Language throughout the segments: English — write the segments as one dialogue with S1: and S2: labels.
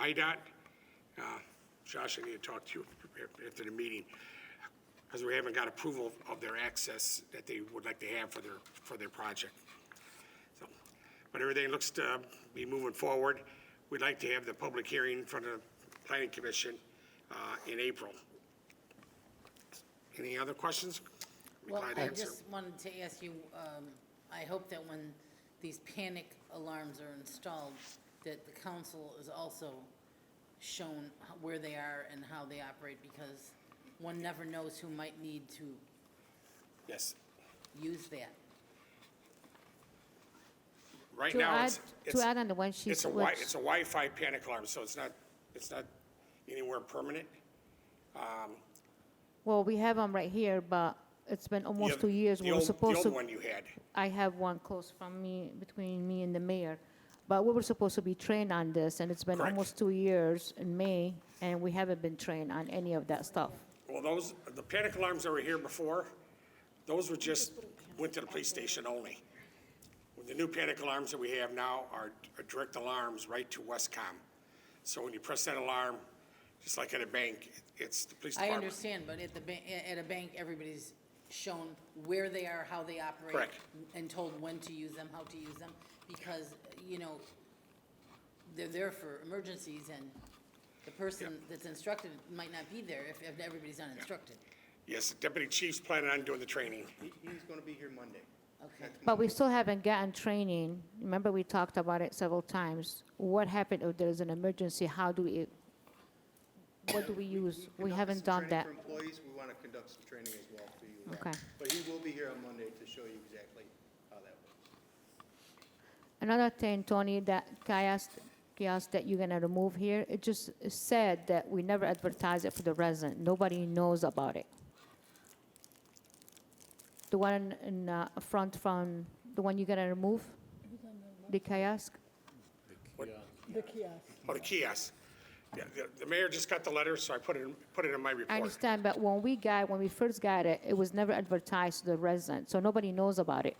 S1: IDOT. Uh, Josh, I need to talk to you after the meeting, because we haven't got approval of their access that they would like to have for their, for their project. So, But everything looks to be moving forward. We'd like to have the public hearing from the planning commission uh, in April. Any other questions? Be
S2: Well,
S1: glad to
S2: I
S1: answer.
S2: just wanted to ask you, um, I hope that when these panic alarms are installed, that the council is also shown h- where they are and how they operate, because one never knows who might need to
S1: Yes.
S2: use that.
S1: Right
S3: To
S1: now,
S3: add,
S1: it's.
S3: to
S1: it's-
S3: add on the one she
S1: It's a Wi,
S3: switched,
S1: it's a Wi-Fi panic alarm, so it's not, it's not anywhere permanent.
S3: well, we have them right here, but it's been
S1: The
S3: almost
S1: oth-
S3: two years.
S1: the
S3: We were
S1: old-
S3: supposed
S1: The old
S3: to,
S1: one you had,
S3: I have one close from me, between me and the mayor. But we were supposed to be trained on this, and it's been
S1: Correct.
S3: almost two years in May, and we haven't been trained on any of that stuff.
S1: well, those, the panic alarms that were here before, those were just, went to the police station only. The new panic alarms that we have now are are direct alarms right to Westcom. So when you press that alarm, just like at a bank, it's the police
S2: I
S1: department.
S2: understand, but at the, ba- a- at a bank, everybody's shown where they are, how they operate.
S1: Correct.
S2: And told when to use them, how to use them, because, you know, they're there for emergencies and the person that's instructed might not be there if, if everybody's not instructed.
S1: Yes, the Deputy Chief's planning on doing the training.
S4: He, he's gonna be here Monday.
S2: Okay,
S3: But we still haven't gotten training. Remember, we talked about it several times. What happened if there's an emergency? How do we, what do we use? We
S4: Conducted
S3: haven't
S4: some
S3: done that.
S4: training For employees, we wanna conduct some training as well for you.
S3: Okay.
S4: But he will be here on Monday to show you exactly how that works.
S3: Another thing, Tony, that kiosk, kiosk that you're gonna remove here, it just said that we never advertise it for the resident. Nobody knows about it. The one in uh, front from, the one you're gonna remove? The kiosk?
S5: The kiosk.
S1: Oh, the kiosk. Yeah, the- The mayor just got the letter, so I put it, in- put it in my report.
S3: I understand, but when we got, when we first got it, it was never advertised to the resident, so nobody knows about it.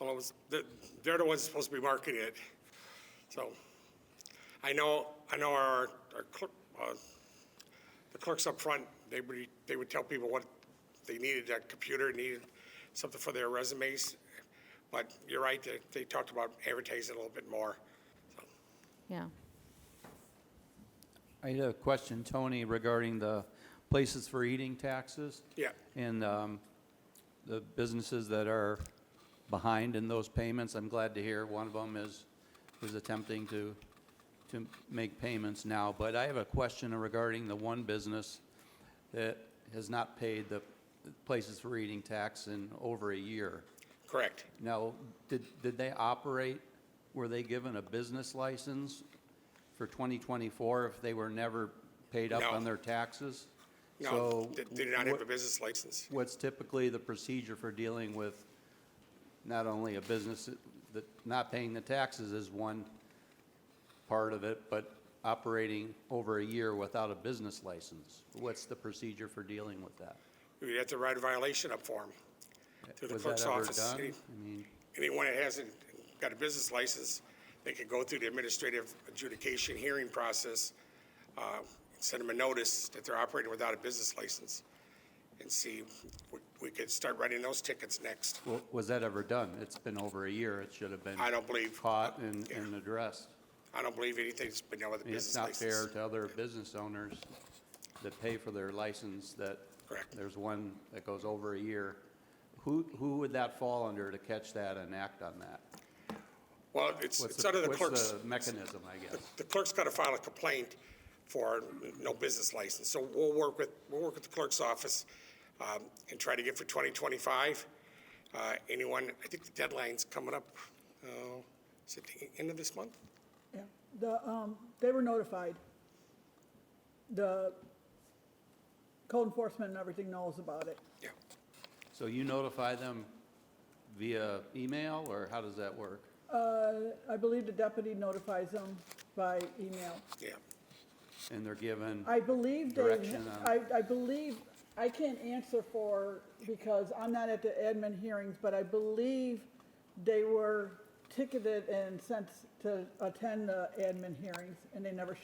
S1: Well, it was, the- they're the ones supposed to be marketing it. So I know, I know our, our clerk, uh, the clerks up front, they would, they would tell people what they needed, a computer, needed something for their resumes. But you're right, they, they talked about advertising a little bit more. So,
S3: Yeah.
S6: I had a question, Tony, regarding the places for eating taxes.
S1: Yeah.
S6: And um, the businesses that are behind in those payments. I'm glad to hear one of them is, is attempting to, to make payments now. But I have a question regarding the one business that has not paid the places for eating tax in over a year.
S1: Correct.
S6: Now, did, did they operate, were they given a business license for 2024 if they were never paid up
S1: No.
S6: on their taxes?
S1: No,
S6: So
S1: they they do not have a
S6: what-
S1: business license.
S6: What's typically the procedure for dealing with not only a business that, not paying the taxes is one part of it, but operating over a year without a business license? What's the procedure for dealing with that?
S1: You'd have to write a violation up for them through the
S6: Was that
S1: clerk's
S6: ever
S1: office.
S6: done?
S1: Any-
S6: I mean,
S1: anyone that hasn't got a business license, they could go through the administrative adjudication hearing process, uh, send them a notice that they're operating without a business license, and see, we- we could start writing those tickets next.
S6: Wa- Was that ever done? It's been over a year. It should have been.
S1: I don't believe-
S6: Caught and,
S1: Yeah.
S6: and addressed.
S1: I don't believe anything's been done with a
S6: I mean, It's
S1: business
S6: not
S1: license.
S6: fair to other business owners that pay for their license that.
S1: Correct.
S6: There's one that goes over a year. Who, who would that fall under to catch that and act on that?
S1: Well, it's,
S6: What's
S1: it's under the
S6: What's
S1: clerk's,
S6: the mechanism, I guess?
S1: the clerk's got to file a complaint for no business license. So we'll work with, we'll work with the clerk's office um, and try to get for 2025. Uh, Anyone, I think the deadline's coming up, uh, is it the end of this month?
S5: Yeah, the, um, they were notified. The code enforcement and everything knows about it.
S1: Yeah.
S6: So you notify them via email or how does that work?
S5: Uh, I believe the deputy notifies them by email.
S1: Yeah.
S6: And they're given,
S5: I believe they,
S6: Direction on-
S5: I, I believe, I can't answer for, because I'm not at the admin hearings, but I believe they were ticketed and sent to attend the admin hearings, and they never